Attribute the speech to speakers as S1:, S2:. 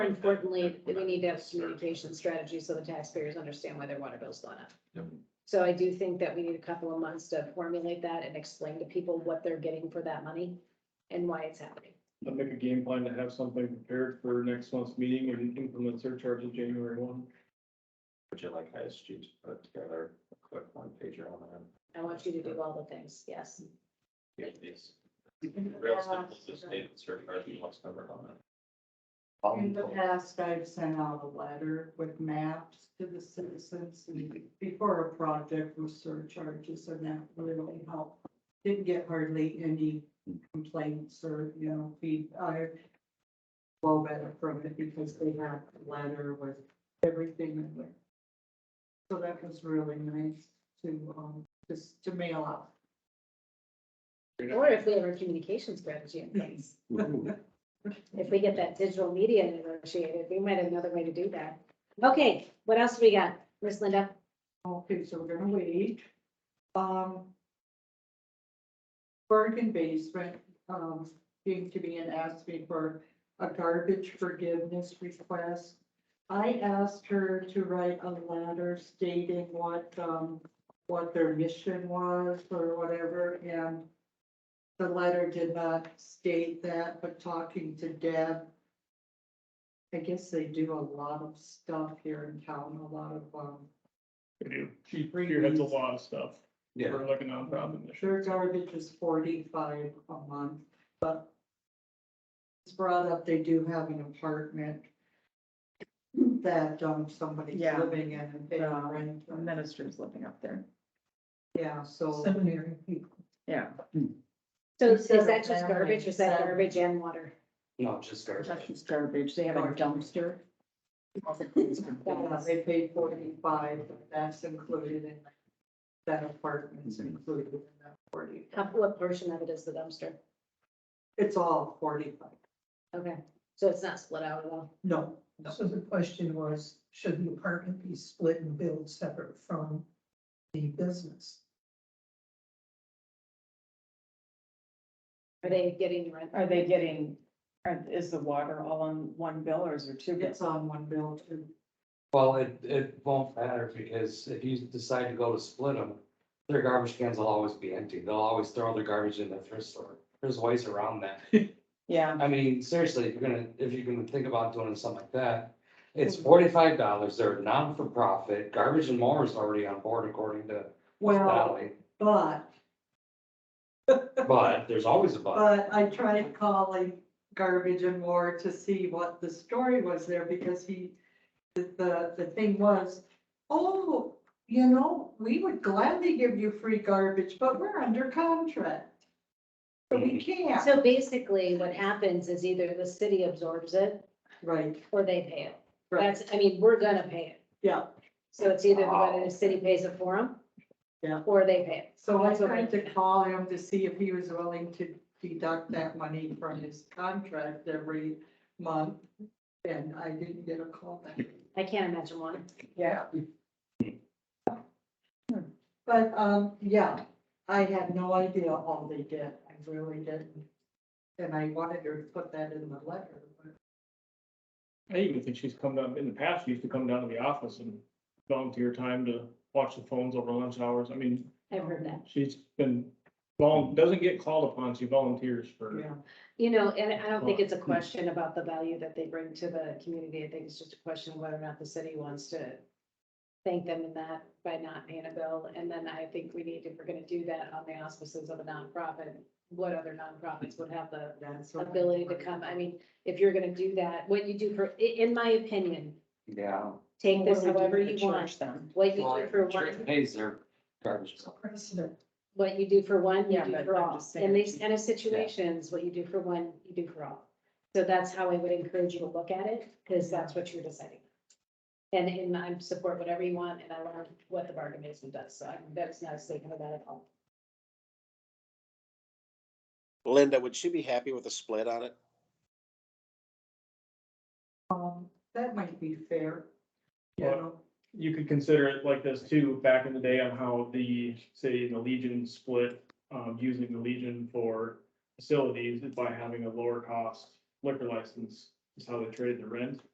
S1: importantly, we need to have communication strategy so the taxpayers understand why their water bill's going up.
S2: Yep.
S1: So I do think that we need a couple of months to formulate that and explain to people what they're getting for that money and why it's happening.
S3: I'll make a game plan to have something prepared for next month's meeting and implement surcharge in January one.
S2: Would you like ISG to put together a quick one pager on that?
S1: I want you to do all the things, yes.
S2: Yeah, please. Real simple, just state the surcharge and what's covered on it.
S4: Um,
S5: In the past, I've sent out a letter with maps to the citizens and before a project with surcharges and that really helped. Didn't get hardly any complaints or, you know, feedback. Well, better from it because they had a letter with everything in there. So that was really nice to, um, just to mail out.
S1: Or if we have our communication strategy in place, if we get that digital media negotiated, we might have another way to do that. Okay, what else we got? Miss Linda?
S5: Okay, so we're gonna wait. Um. Bergen basement, um, came to me and asked me for a garbage forgiveness request. I asked her to write a letter stating what, um, what their mission was or whatever, and the letter did not state that, but talking to Deb, I guess they do a lot of stuff here in town, a lot of, um,
S3: They do. She spearheads a lot of stuff.
S2: Yeah,
S3: We're like a nonprofit. initiative.
S5: Sure, garbage is forty-five a month, but it's brought up, they do have an apartment that, um, somebody's
S6: Yeah.
S5: living in and paying
S6: Yeah.
S5: rent.
S6: The minister's living up there.
S5: Yeah, so.
S6: Seminary. Yeah.
S1: So is
S5: Consider
S1: that just
S5: family,
S1: garbage or is that
S5: so-
S1: garbage and water?
S2: no, just
S6: That's
S2: garbage.
S6: just garbage. They have a dumpster.
S5: Yeah, they pay forty-five, that's included in, that apartment's included in that forty.
S1: How, what portion of it is the dumpster?
S5: It's all forty-five.
S1: Okay, so it's not split out at all.
S5: No,
S7: So the question was, should the apartment be split and billed separate from the business?
S1: Are they getting rent?
S6: Are they getting, are- is the water all on one bill or is there two bills?
S5: it's on one bill too.
S4: Well, it, it won't matter because if you decide to go to split them, their garbage cans will always be empty. They'll always throw their garbage in the thrift store. There's ways around that.
S6: Yeah,
S4: I mean, seriously, if you're gonna, if you're gonna think about doing something like that, it's forty-five dollars. They're non-for-profit. Garbage and More is already on board according to
S5: Well,
S4: Valley.
S5: but
S4: But there's always a but.
S5: But I tried calling Garbage and War to see what the story was there because he, the, the thing was, oh, you know, we would gladly give you free garbage, but we're under contract. So we can't.
S1: So basically, what happens is either the city absorbs it
S5: Right,
S1: or they pay it.
S5: right,
S1: That's, I mean, we're gonna pay it.
S5: yeah.
S1: So it's either whether the city pays it for them.
S5: Yeah.
S1: Or they pay it.
S5: So I
S1: That's what
S5: tried
S1: we-
S5: to call him to see if he was willing to deduct that money from his contract every month. And I didn't get a call back.
S1: I can't imagine one.
S6: yeah.
S5: But, um, yeah, I had no idea all they did, I really didn't. And I wanted her to put that in the letter, but
S3: I even think she's come down, in the past, she used to come down to the office and volunteer time to watch the phones over lunch hours. I mean,
S1: I've heard that.
S3: she's been, vol- doesn't get called upon, she volunteers for.
S5: yeah.
S1: You know, and I don't think it's a question about the value that they bring to the community. I think it's just a question of whether or not the city wants to thank them in that by not paying a bill. And then I think we need, if we're gonna do that on the auspices of a nonprofit, what other nonprofits would have the
S5: that's what I-
S1: ability to come? I mean, if you're gonna do that, what you do for, i- in my opinion,
S4: Yeah.
S1: take this
S6: What do we do
S1: however
S6: to
S1: you want.
S6: charge them?
S1: What you
S4: Well,
S1: do
S4: if
S1: for
S4: the church
S1: one,
S4: Pays their garbage.
S7: So precedent,
S1: what you do for one, you
S6: Yeah,
S1: do
S6: but
S1: for
S6: I'm
S1: all.
S6: just saying-
S1: In these kind of situations, what you do for one, you do for all. So that's how I would encourage you to look at it, because that's what you're deciding. And, and I support whatever you want, and I learned what the bargain basement does, so I'm- that's not a statement of that at all.
S8: Linda, would she be happy with a split on it?
S5: Um, that might be fair. You
S3: Well,
S5: know,
S3: you could consider it like this too, back in the day on how the, say, the Legion split, um, using the Legion for facilities by having a lower cost liquor license, is how they traded the rent.